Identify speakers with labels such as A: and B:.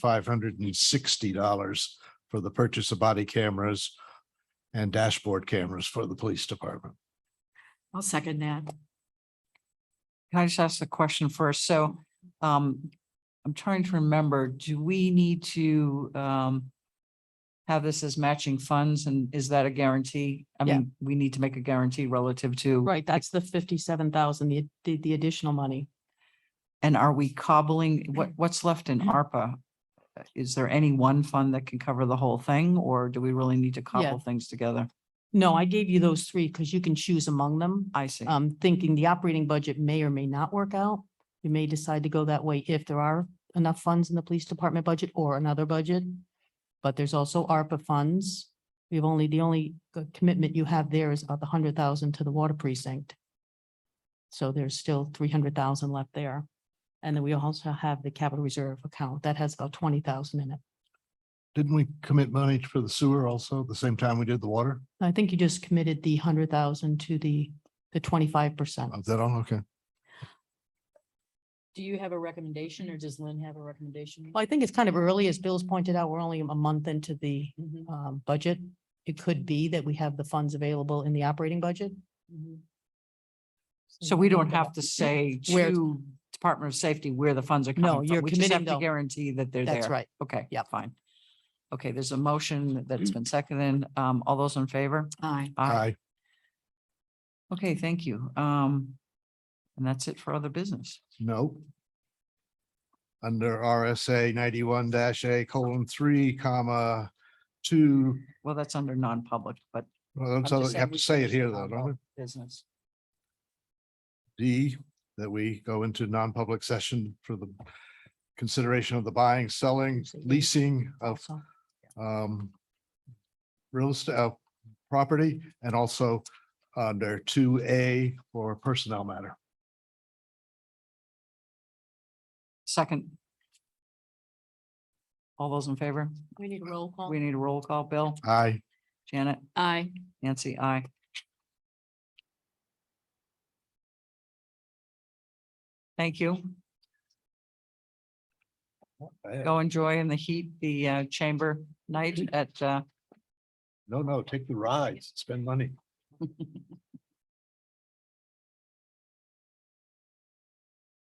A: five hundred and sixty dollars for the purchase of body cameras and dashboard cameras for the police department.
B: I'll second that.
C: Can I just ask a question first? So um, I'm trying to remember, do we need to um. Have this as matching funds and is that a guarantee? I
B: Yeah.
C: mean, we need to make a guarantee relative to.
B: Right, that's the fifty-seven thousand, the, the, the additional money.
C: And are we cobbling, what, what's left in ARPA? Is there any one fund that can cover the whole thing or do we really need to cobble things together?
B: No, I gave you those three because you can choose among them.
C: I see.
B: Um, thinking the operating budget may or may not work out. You may decide to go that way if there are enough funds in the police department budget or another budget. But there's also ARPA funds. We've only, the only c- commitment you have there is about the hundred thousand to the water precinct. So there's still three hundred thousand left there. And then we also have the capital reserve account that has about twenty thousand in it.
A: Didn't we commit money for the sewer also at the same time we did the water?
B: I think you just committed the hundred thousand to the, the twenty-five percent.
A: Is that all? Okay.
D: Do you have a recommendation or does Lynn have a recommendation?
B: Well, I think it's kind of early, as Bill's pointed out, we're only a month into the
D: Mhm,
B: um budget. It could be that we have the funds available in the operating budget. Mm-hmm.
D: mhm.
C: So we don't have to say
B: Where-
C: to Department of Safety where the funds are coming
B: No,
C: from.
B: you're
C: We just have
B: committing
C: to
B: them.
C: guarantee that they're there.
B: That's right.
C: Okay, yeah,
B: Yep.
C: fine. Okay, there's a motion that's been seconded. Um, all those in favor?
D: Aye.
A: Aye.
C: Okay, thank you. Um, and that's it for other business.
A: No. Under RSA ninety-one A colon three comma two.
C: Well, that's under non-public, but
A: Well,
C: I'm
A: so
C: just
A: you
C: saying
A: have
C: we
A: to
C: should
A: say it
C: just
A: here
C: not
A: though,
C: vote
A: don't we?
C: business.
A: D, that we go into non-public session for the consideration of the buying, selling, leasing of
C: Oh.
B: Also,
A: um, real estate, uh, property, and also under two A for personnel matter.
C: Second. All those in favor?
B: We need a roll call.
C: We need a roll call. Bill,
A: Aye.
C: Janet,
D: Aye.
C: Nancy, I. Thank you. Go enjoy in the heat, the uh, chamber night at, uh,
A: No, no, take the rides, spend money.